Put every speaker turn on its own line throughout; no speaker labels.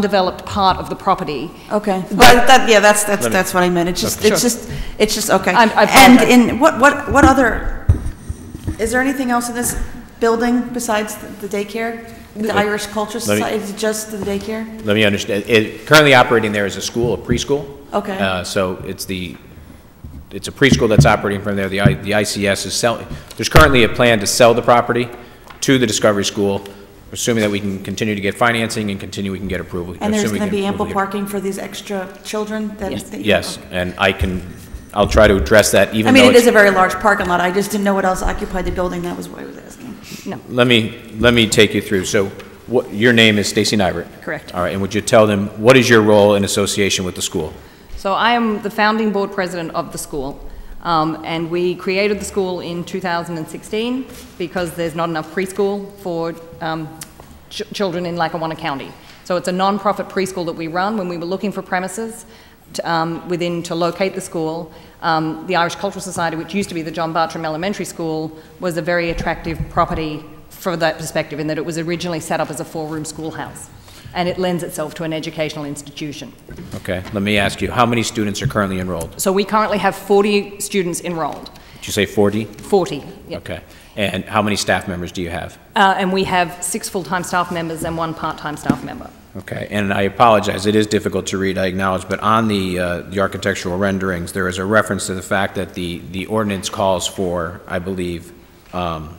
undeveloped part of the property.
Okay, but that, yeah, that's, that's, that's what I meant, it's just,
Sure.
it's just, it's just, okay.
I- I apologize.
And in, what, what, what other, is there anything else in this building besides the daycare? The Irish Culture
Let me-
Society, is it just the daycare?
Let me understand, it, currently operating there is a school, a preschool.
Okay.
Uh, so it's the, it's a preschool that's operating from there, the I, the ICS is selling, there's currently a plan to sell the property to the Discovery School, assuming that we can continue to get financing and continue, we can get approval.
And there's
assuming we
gonna
can
be ample
approval here.
parking for these extra children that? that-
Yes, and I can, I'll try to address that
I
even though.
mean, it
it's-
is a very large parking lot, I just didn't know what else occupied the building, that was why I was asking.
Let me, let me take you through, so what, your name is Stacy Nybert?
Correct.
All right, and would you tell them, what is your role in association with the school?
So I am the founding board president of the school, um, and we created the school in 2016 because there's not enough preschool for um, ch- children in Lackawanna County. So it's a nonprofit preschool that we run. When we were looking for premises to, um, within to locate the school, um, the Irish Cultural Society, which used to be the John Bartram Elementary School, was a very attractive property for that perspective in that it was originally set up as a four-room schoolhouse, and it lends itself to an educational institution.
Okay, let me ask you, how many students are currently enrolled?
So we currently have 40 students enrolled,
Did you say 40?
40. yeah.
Okay. And how many staff members do you have?
Uh, And we have six full-time staff members and one part-time staff member.
Okay, and I apologize, it is difficult to read, I acknowledge, but on the, uh, the architectural renderings, there is a reference to the fact that the, the ordinance calls for, I believe, um,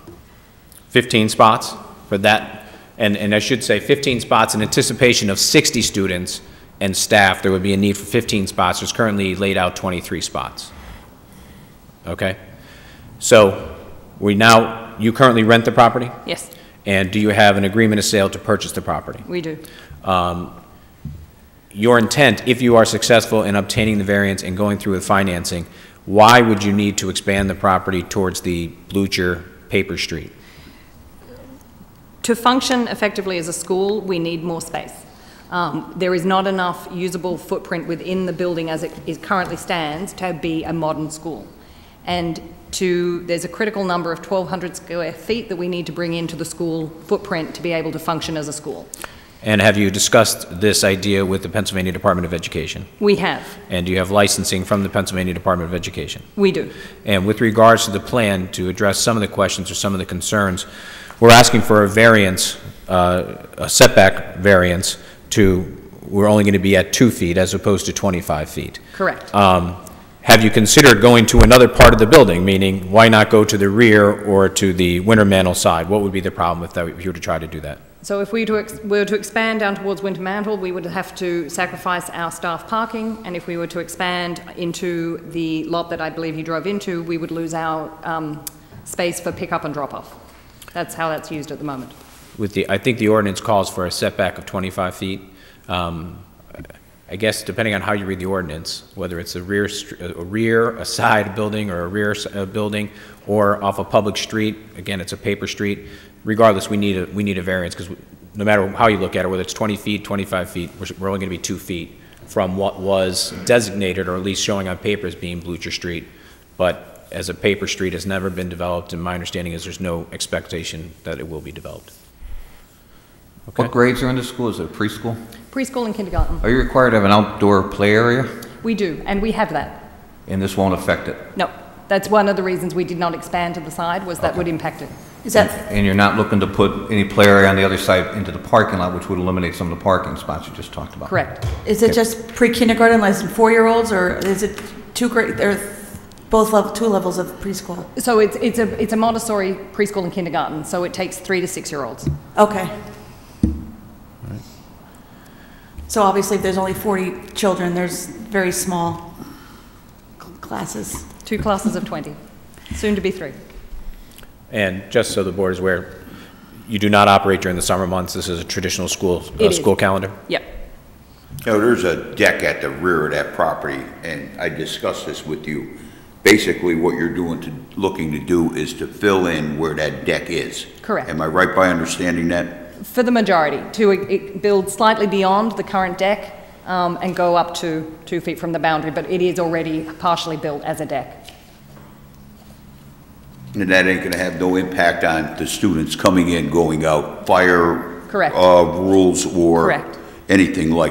15 spots for that, and, and I should say 15 spots in anticipation of 60 students and staff, there would be a need for 15 spots, there's currently laid out 23 spots. Okay? So, we now, you currently rent the property?
Yes,
And do you have an agreement of sale to purchase the property?
we do.
Your intent, if you are successful in obtaining the variance and going through with financing, why would you need to expand the property towards the Blucher Paper Street?
To function effectively as a school, we need more space. Um, There is not enough usable footprint within the building as it is currently stands to be a modern school. And to, there's a critical number of 1,200 square feet that we need to bring into the school footprint to be able to function as a school.
And have you discussed this idea with the Pennsylvania Department of Education?
We have,
And do you have licensing from the Pennsylvania Department of Education?
we do.
And with regards to the plan, to address some of the questions or some of the concerns, we're asking for a variance, uh, a setback variance to, we're only going to be at two feet as opposed to 25 feet.
Correct.
Um, Have you considered going to another part of the building, meaning why not go to the rear or to the winter mantle side? What would be the problem if that- if you were to try to do that?
So if we to ex- were to expand down towards Wintermantle, we would have to sacrifice our staff parking, and if we were to expand into the lot that I believe you drove into, we would lose our um, space for pickup and drop-off. That's how that's used at the moment.
With the, I think the ordinance calls for a setback of 25 feet. Um, I guess depending on how you read the ordinance, whether it's a rear, str- a rear, a side building, or a rear s- uh, building, or off a public street, again, it's a paper street, regardless, we need a, we need a variance, because no matter how you look at it, whether it's 20 feet, 25 feet, we're s- we're only going to be two feet from what was designated, or at least showing on paper as being Blucher Street, but as a paper street has never been developed, and my understanding is there's no expectation that it will be developed. Okay.
What grades are in the school? Is it preschool?
Preschool and kindergarten,
Are you required to have an outdoor play area?
we do, and we have that.
And this won't affect it?
No, that's one of the reasons we did not expand to the side, was that would impact it.
Is that,
And you're not looking to put any play area on the other side into the parking lot, which would eliminate some of the parking spots you just talked about?
Correct.
is it just pre-kindergarten, less than four-year-olds, or is it two grade, or both level, two levels of preschool?
So it's, it's a, it's a Montessori preschool and kindergarten, so it takes three to six-year-olds.
Okay. So obviously, if there's only 40 children, there's very small cl- classes.
Two classes of 20, soon to be three.
And just so the board is aware, you do not operate during the summer months. This is a traditional school,
It
uh,
is.
school calendar.
Yep.
No, there's a deck at the rear of that property, and I discussed this with you. Basically, what you're doing to, looking to do is to fill in where that deck is.
Correct.
Am I right by understanding that?
For the majority, to uh, build slightly beyond the current deck um, and go up to two feet from the boundary, but it is already partially built as a deck.
And that ain't gonna have no impact on the students coming in, going out, fire.
Correct.
Uh, rules or.
Correct.
anything like